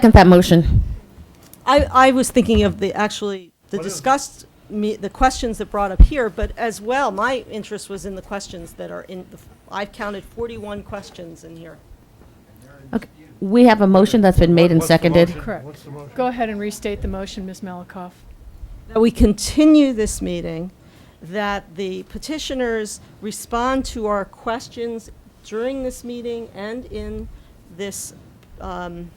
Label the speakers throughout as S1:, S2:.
S1: Second that motion.
S2: I, I was thinking of the, actually, the discussed, me- the questions that brought up here, but as well, my interest was in the questions that are in, the I've counted 41 questions in here.
S1: Okay. We have a motion that's been made and
S3: What's the
S1: seconded.
S3: motion?
S4: Correct.
S3: What's the motion?
S4: Go ahead and restate the motion, Ms. Malakoff.
S2: That we continue this meeting, that the petitioners respond to our questions during this meeting and in this um,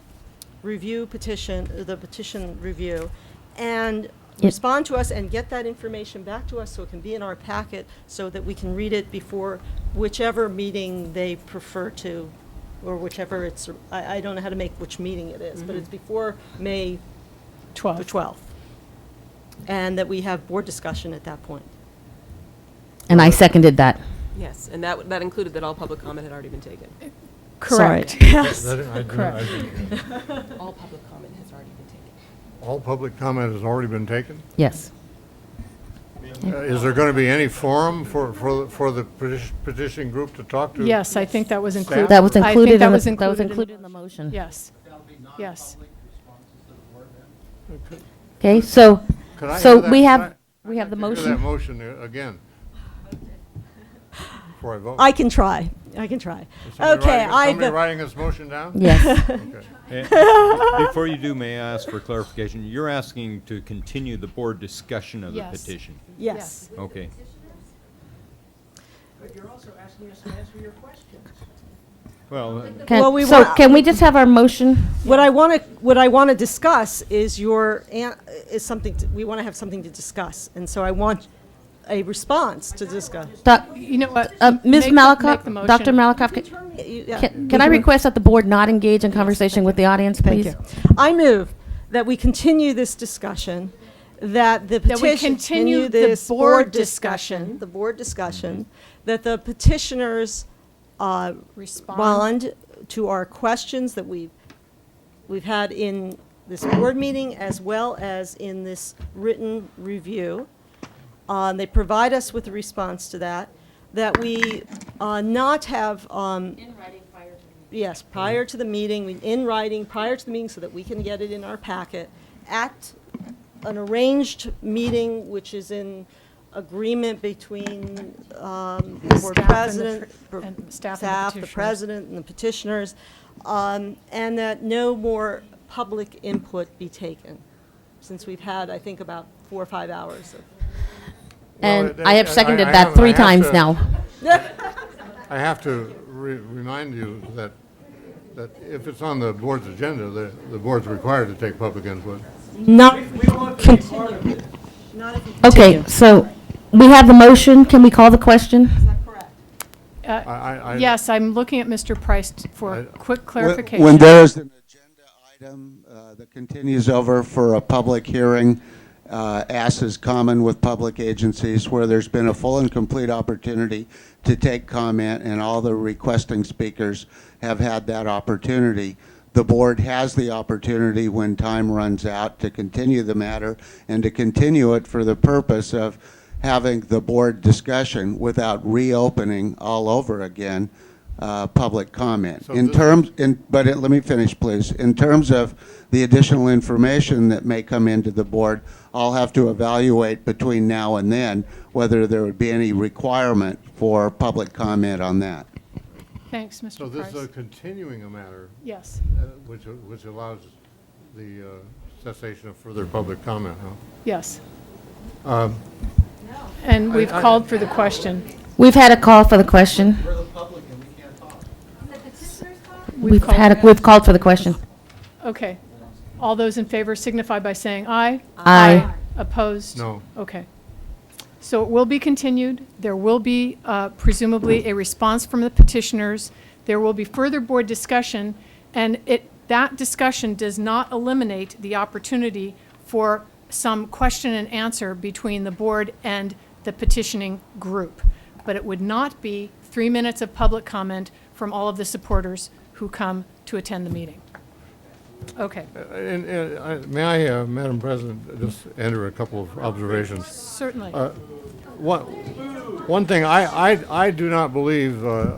S2: review petition, the petition review, and respond to us and get that information back to us so it can be in our packet so that we can read it before whichever meeting they prefer to, or whichever it's, I, I don't know how to make which meeting it is, but it's before May the
S4: 12.
S2: 12th, and that we have board discussion at that point.
S1: And I seconded that.
S5: Yes, and that, that included that all public comment had already been taken.
S4: Correct.
S2: Sorry.
S3: That- I didn't- I
S4: Correct.
S3: didn't-
S5: All public comment has already been taken.
S3: All public comment has already been taken?
S1: Yes.
S3: Uh, Is there going to be any forum for, for, the- for the petition- petition group to talk to?
S4: Yes, I think that was included.
S1: That was
S4: I think
S1: included
S4: that
S1: in, the-
S4: was
S1: that was
S4: in the
S1: included in the motion.
S4: Yes. Yes.
S1: Okay, so,
S3: Can I
S1: so
S3: hear that?
S1: we
S3: Can
S1: have,
S3: I-
S1: we have the
S3: Hear that
S1: motion.
S3: motion uh, again. Before I vote.
S2: I can try, I can try.
S3: Is somebody
S2: Okay,
S3: writing- Somebody
S2: I,
S3: writing this motion down?
S1: Yes,
S3: Okay.
S6: And Eh, Before you do, may I ask for clarification? You're asking to continue the board discussion of the
S4: Yes.
S6: petition?
S2: yes,
S6: Okay.
S7: But you're also asking us to answer your questions.
S6: Well,
S2: Well,
S1: can,
S2: we
S1: so
S2: want-
S1: can we just have our motion?
S2: what I want to, what I want to discuss is your, an- is something, to- we want to have something to discuss, and so I want a response to discuss.
S1: Doc-
S4: You know what?
S1: uh, Ms.
S4: Make the- make the
S1: Malakoff, Dr.
S4: motion.
S1: Malakoff, ca-
S2: You- yeah.
S1: can can I request that the board not engage in conversation with the audience, please?
S2: I move that we continue this discussion, that the
S4: That we
S2: petition.
S4: continue the
S2: this
S4: board discussion.
S2: The board discussion, that the petitioners uh,
S4: Respond.
S2: respond to our questions that we've, we've had in this board meeting as well as in this written review. Uh, They provide us with a response to that, that we uh, not have. um, Yes, prior to the meeting, we- in writing, prior to the meeting, so that we can get it in our packet, at an arranged meeting, which is in agreement between um, the board
S4: Staff and the
S2: president,
S4: pr-
S2: per-
S4: and staff and the
S2: staff, the
S4: petitioners.
S2: president, and the petitioners, um, and that no more public input be taken, since we've had, I think, about four or five hours of
S3: Well,
S1: And
S3: it-
S1: I have
S3: I- I-
S1: seconded
S3: I
S1: that
S3: have-
S1: three
S3: I have
S1: times
S3: to-
S1: now.
S3: I have to re- remind you that, that if it's on the board's agenda, the, the board's required to take public input.
S1: Not,
S2: Not if you
S1: okay, so we have the motion. Can we call the question?
S4: Uh,
S3: I- I- I-
S4: Yes, I'm looking at Mr. Price t- for
S3: I-
S4: a quick
S7: When-
S4: clarification.
S7: When there is an agenda item uh, that continues over for a public hearing, uh, as is common with public agencies, where there's been a full and complete opportunity to take comment, and all the requesting speakers have had that opportunity, the board has the opportunity when time runs out to continue the matter and to continue it for the purpose of having the board discussion without reopening all over again uh, public comment.
S3: So
S7: In
S3: this-
S7: terms, in, but it- let me finish, please. In terms of the additional information that may come into the board, I'll have to evaluate between now and then whether there would be any requirement for public comment on that.
S4: Thanks,
S3: So
S4: Mr.
S3: this is a
S4: Price.
S3: continuing a matter
S4: Yes.
S3: uh, which, which allows the uh, cessation of further public comment, huh?
S4: Yes.
S3: Um,
S4: And we've called for the question.
S1: We've had a call for the question.
S4: We've
S1: We've
S4: called-
S1: had, a- we've called for the question.
S4: Okay. All those in favor signify by saying aye.
S1: Aye.
S4: Opposed?
S3: No.
S4: Okay. So it will be continued. There will be uh, presumably a response from the petitioners. There will be further board discussion, and it, that discussion does not eliminate the opportunity for some question and answer between the board and the petitioning group. But it would not be three minutes of public comment from all of the supporters who come to attend the meeting. Okay,
S3: And, and I- may I, uh, Madam President, just enter a couple of observations?
S4: certainly.
S3: One, one thing, I, I, I do not believe uh,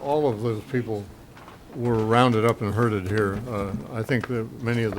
S3: all of those people were rounded up and herded here. Uh, I think that many of the